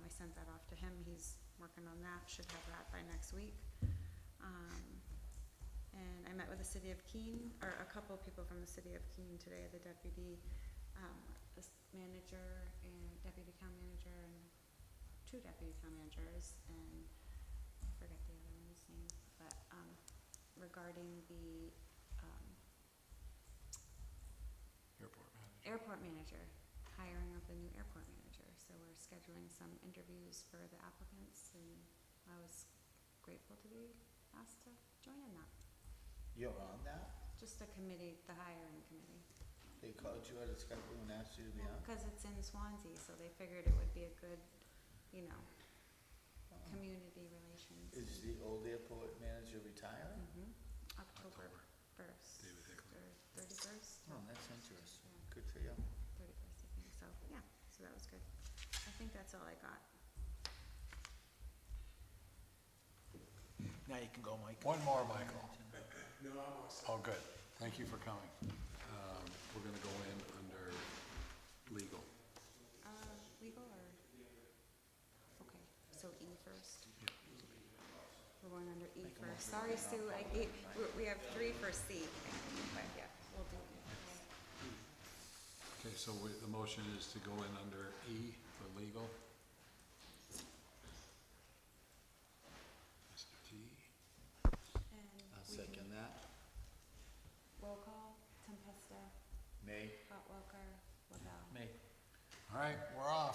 um, that off to him, he's working on that, should have that by next week. Um, and I met with the city of Keene, or a couple of people from the city of Keene today, the deputy, um, this manager and deputy town manager and two deputy town managers and I forget the other one's name, but, um, regarding the, um, Airport manager. airport manager, hiring of the new airport manager. So we're scheduling some interviews for the applicants and I was grateful to be asked to join in that. You're on that? Just the committee, the hiring committee. They called you out of Skype and asked you to be on? Because it's in Swansea, so they figured it would be a good, you know, Oh. community relations. Is the old airport manager retiring? Mhm. October first, David Hicklin. or thirty-first? Oh, that's interesting. Good for you. Thirty-first, I think, so, yeah, so that was good. I think that's all I got. Now you can go, Mike. One more, Michael. Oh, good. Thank you for coming. Um, We're going to go in under legal. Uh, legal or? Okay, so E first. We're going under E first. Sorry, Sue, I gave, we- we have three for C, but yeah, we'll do E first. Okay, so we- the motion is to go in under E for legal. Mr. T, And I'll we second can- that. Roll call, Tempesta, May? Hot Welker, Lavelle. May. all right, we're off.